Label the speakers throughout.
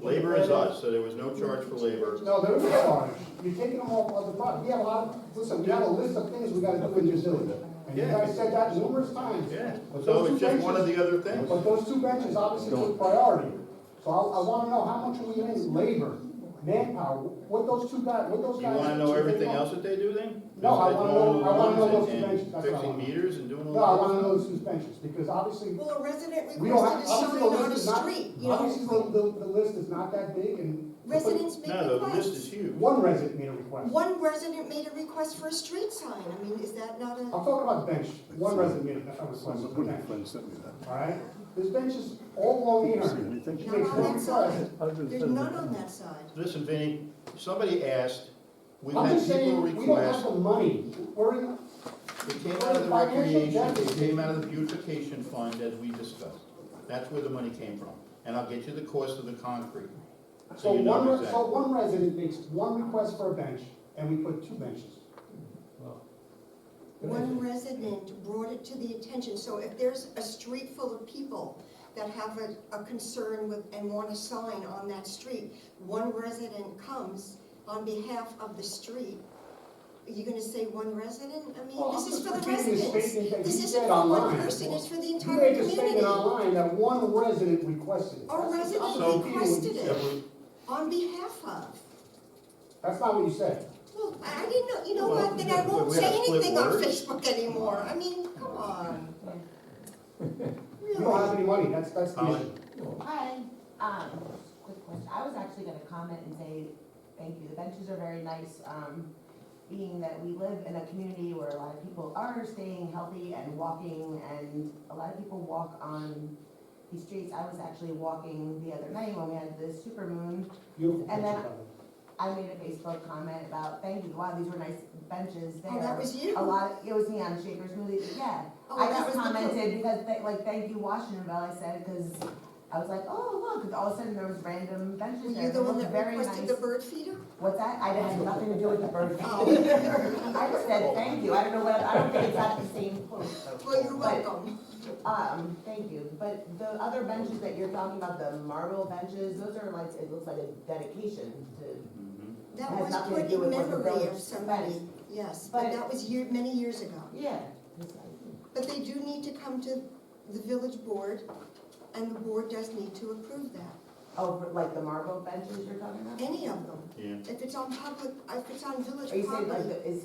Speaker 1: Labor is us, so there was no charge for labor.
Speaker 2: No, there is a charge. You're taking them off of the front. We have a lot, of- listen, we have a list of things we gotta do in New Zealand. And you
Speaker 1: Yeah.
Speaker 2: guys said that numerous times.
Speaker 1: Yeah,
Speaker 2: But
Speaker 1: so
Speaker 2: those two
Speaker 1: it's just one of
Speaker 2: benches-
Speaker 1: the other things.
Speaker 2: But those two benches obviously took priority. So I, I wanna know how much we need labor, manpower, what those two guys, what those
Speaker 1: You
Speaker 2: guys.
Speaker 1: wanna know
Speaker 2: should take
Speaker 1: everything
Speaker 2: on.
Speaker 1: else that they do then?
Speaker 2: No, I wanna know- I wanna know those
Speaker 1: And-
Speaker 2: dimensions,
Speaker 1: and
Speaker 2: that's what I
Speaker 1: Fixing
Speaker 2: want.
Speaker 1: meters and doing all
Speaker 2: No, I wanna
Speaker 1: that?
Speaker 2: know those two benches, because obviously,
Speaker 3: Well, a resident
Speaker 2: we don't have,
Speaker 3: requested a
Speaker 2: obviously
Speaker 3: sign
Speaker 2: the list
Speaker 3: on a
Speaker 2: is not,
Speaker 3: street, you
Speaker 2: obviously
Speaker 3: know?
Speaker 2: the, the, the list is not that big and.
Speaker 3: Residents make
Speaker 1: No, the list
Speaker 3: requests.
Speaker 1: is huge.
Speaker 2: One resident made a request.
Speaker 3: One resident made a request for a street sign, I mean, is that not
Speaker 2: I'm
Speaker 3: a,
Speaker 2: talking about the bench, one resident made a request for the bench. Alright, this bench is all along here. She makes
Speaker 3: not
Speaker 2: one
Speaker 3: on that side?
Speaker 2: request.
Speaker 3: There's none on that side.
Speaker 1: Listen, Vinny, somebody asked, we've
Speaker 2: I'm
Speaker 1: had
Speaker 2: just
Speaker 1: people
Speaker 2: saying, we don't have
Speaker 1: request,
Speaker 2: the money. We're in,
Speaker 1: it came out of the
Speaker 2: financial
Speaker 1: recreation, it
Speaker 2: deficit.
Speaker 1: came out of the beautification fund as we discussed. That's where the money came from, and I'll get you the cost of the concrete.
Speaker 2: so
Speaker 1: you know
Speaker 2: one, re-
Speaker 1: exactly.
Speaker 2: so one resident makes one request for a bench, and we put two benches.
Speaker 3: One resident brought it to the attention, so if there's a street full of people that have a, a concern with, and want a sign on that street, one resident comes on behalf of the street, are you gonna say one resident? I mean,
Speaker 2: Well,
Speaker 3: this
Speaker 2: I'm
Speaker 3: is
Speaker 2: just
Speaker 3: for the
Speaker 2: repeating the
Speaker 3: residents.
Speaker 2: statement that you
Speaker 3: This isn't
Speaker 2: said
Speaker 3: for one
Speaker 2: online.
Speaker 3: person, it's for the
Speaker 2: You
Speaker 3: entire
Speaker 2: made a
Speaker 3: community.
Speaker 2: statement online that one resident requested. it.
Speaker 3: A
Speaker 2: That's-
Speaker 3: resident
Speaker 2: I'm confused.
Speaker 3: requested it.
Speaker 1: That was-
Speaker 3: On behalf of,
Speaker 2: That's not what you said.
Speaker 3: well, I didn't know, you know
Speaker 1: Well,
Speaker 3: what, then I won't
Speaker 1: we had
Speaker 3: say
Speaker 1: to split
Speaker 3: anything on
Speaker 1: words.
Speaker 3: Facebook anymore, I mean, come on.
Speaker 2: You
Speaker 3: Really?
Speaker 2: don't have any money, that's, that's the
Speaker 1: Holly?
Speaker 2: issue.
Speaker 4: Hi, um, quick question, I was actually gonna comment and say, thank you, the benches are very nice, um, being that we live in a community where a lot of people are staying healthy and walking, and a lot of people walk on these streets, I was actually walking the other night when we had the super moon,
Speaker 2: Beautiful
Speaker 4: And
Speaker 2: picture,
Speaker 4: then-
Speaker 2: by the way.
Speaker 4: I made a Facebook comment about, thank you, wow, these were nice benches there.
Speaker 3: Oh, that was you?
Speaker 4: A lot, it was me on Shakers Moody, yeah,
Speaker 3: Oh,
Speaker 4: I
Speaker 3: that
Speaker 4: just
Speaker 3: was the group.
Speaker 4: commented because, they- like, thank you Washingtonville, I said, because I was like, oh, look, and all of a sudden there was random
Speaker 3: Were
Speaker 4: benches there.
Speaker 3: you the
Speaker 4: They
Speaker 3: one
Speaker 4: looked
Speaker 3: that
Speaker 4: very
Speaker 3: requested
Speaker 4: nice.
Speaker 3: the bird feeder?
Speaker 4: What's that? I didn't have nothing to do with the bird.
Speaker 3: Oh,
Speaker 4: I just said, thank you, I don't know what, I don't think it's at the same post.
Speaker 3: well, you're
Speaker 4: But,
Speaker 3: welcome.
Speaker 4: Um, thank you, but the other benches that you're talking about, the marble benches, those are like, it looks like a dedication to,
Speaker 1: Mhm.
Speaker 3: That
Speaker 4: Has
Speaker 3: was
Speaker 4: nothing to
Speaker 3: put
Speaker 4: do
Speaker 3: in
Speaker 4: with what the
Speaker 3: memory of
Speaker 4: village
Speaker 3: somebody,
Speaker 4: spent.
Speaker 3: yes, but
Speaker 4: But-
Speaker 3: that was year, many years ago.
Speaker 4: yeah.
Speaker 3: But they do need to come to the village board, and the board does need to approve that,
Speaker 4: Oh, for- like the marble benches you're talking about?
Speaker 3: any of them.
Speaker 1: Yeah,
Speaker 3: If it's on public, if it's on village
Speaker 4: Are you saying like,
Speaker 3: property,
Speaker 4: the- is,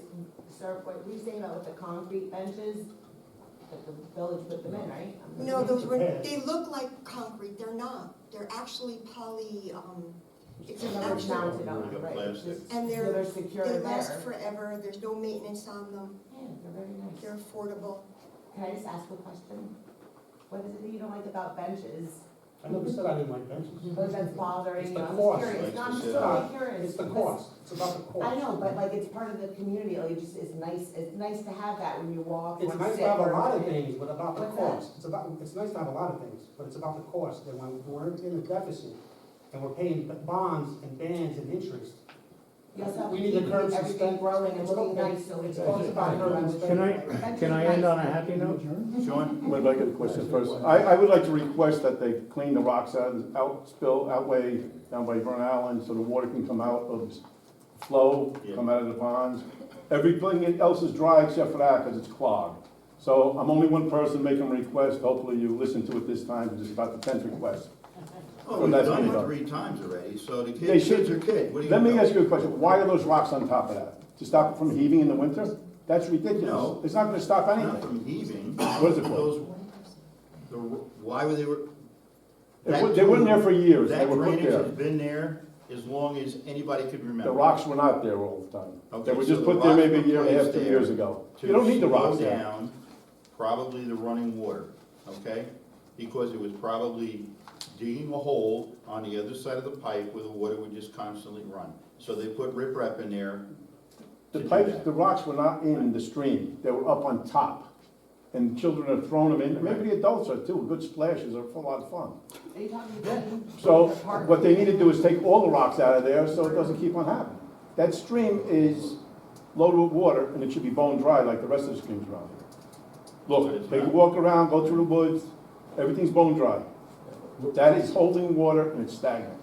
Speaker 4: sir, what were you saying about with the concrete benches? That the village put them in, right? I'm
Speaker 3: no, those were,
Speaker 2: Yeah.
Speaker 3: they look like concrete, they're not. They're actually poly, um, it's an
Speaker 4: They're
Speaker 3: actual,
Speaker 4: mounted
Speaker 1: Like a
Speaker 4: on, right?
Speaker 1: plastic.
Speaker 4: just-
Speaker 3: And they're-
Speaker 4: So they're secure
Speaker 3: they
Speaker 4: there.
Speaker 3: last forever, there's no maintenance on them,
Speaker 4: Yeah, they're very nice.
Speaker 3: they're affordable.
Speaker 4: Can I just ask a question? What is it that you don't like about benches?
Speaker 2: I never said I didn't like benches.
Speaker 4: What that's bothering
Speaker 2: It's
Speaker 4: you?
Speaker 2: the
Speaker 4: I'm
Speaker 2: cost,
Speaker 4: just curious,
Speaker 1: like
Speaker 4: No, I'm
Speaker 1: you
Speaker 4: just
Speaker 1: said.
Speaker 4: really curious.
Speaker 2: It's the
Speaker 4: because-
Speaker 2: cost, it's about the cost.
Speaker 4: I know, but like, it's part of the community, like, it just, it's nice, it's nice to have that when you walk, when
Speaker 2: It's
Speaker 4: you
Speaker 2: nice
Speaker 4: sit,
Speaker 2: to have a
Speaker 4: or-
Speaker 2: lot of things, but about the
Speaker 4: What's that?
Speaker 2: cost, it's about, it's nice to have a lot of things, but it's about the cost, and when we're in a deficit, and we're paying b- bonds and bans and interest.
Speaker 4: You also have
Speaker 2: We
Speaker 4: to
Speaker 2: need to
Speaker 4: keep
Speaker 2: curb some
Speaker 4: everything
Speaker 2: spend-
Speaker 4: growing and
Speaker 2: it's
Speaker 4: looking
Speaker 2: okay.
Speaker 4: nice, so it's.
Speaker 2: It's all about curb and
Speaker 5: Can I,
Speaker 4: Benches
Speaker 5: can I
Speaker 4: nice.
Speaker 5: end on a happy note?
Speaker 1: Sean?
Speaker 6: Wait, but I get a question first. I, I would like to request that they clean the rocks out, out spill, outway down by Vern Island so the water can come out of, flow, come out of the ponds. Everything else is dry except for that because it's clogged. So I'm only one person making a request. Hopefully you listen to it this time because it's about the tenth request.
Speaker 1: Oh,
Speaker 6: Well,
Speaker 1: we've
Speaker 6: that's
Speaker 1: done
Speaker 6: what
Speaker 1: it
Speaker 6: we
Speaker 1: three times already, so the
Speaker 6: They
Speaker 1: kid,
Speaker 6: should-
Speaker 1: kid's are kid, what do you?
Speaker 6: Let me
Speaker 1: know?
Speaker 6: ask you a question. Why are those rocks on top of that? To stop it from heaving in the winter? That's ridiculous.
Speaker 1: No.
Speaker 6: It's not gonna stop
Speaker 1: Not
Speaker 6: anything.
Speaker 1: from heaving.
Speaker 6: What is it for?
Speaker 1: Those- the- Why were they, were-
Speaker 6: They were- They weren't there for years. They
Speaker 1: that
Speaker 6: were put
Speaker 1: drainage
Speaker 6: there.
Speaker 1: has been there as long as anybody could remember.
Speaker 6: The rocks were not there all the time.
Speaker 1: Okay,
Speaker 6: They were
Speaker 1: so
Speaker 6: just
Speaker 1: the
Speaker 6: put there
Speaker 1: rocks
Speaker 6: maybe a year and a half,
Speaker 1: were
Speaker 6: two
Speaker 1: placed
Speaker 6: years
Speaker 1: there
Speaker 6: ago.
Speaker 1: to
Speaker 6: You don't need the
Speaker 1: slow
Speaker 6: rocks there.
Speaker 1: down Probably the running water, okay? Because it was probably digging a hole on the other side of the pipe where the water would just constantly run. So they put riprap in there.
Speaker 6: The
Speaker 1: to do
Speaker 6: pipes,
Speaker 1: that.
Speaker 6: the rocks were not in the stream, they were up on top. And children have thrown them in, maybe the adults are too, good splashes are a lot of fun.
Speaker 4: Are you talking about?
Speaker 6: So what they need to do is take all the rocks out of there so it doesn't keep on happening. That stream is loaded with water and it should be bone dry like the rest of the streams around here.
Speaker 1: But it's
Speaker 6: Look, take a
Speaker 1: not.
Speaker 6: walk around, go through the woods, everything's bone dry. That is holding water and it's stagnant.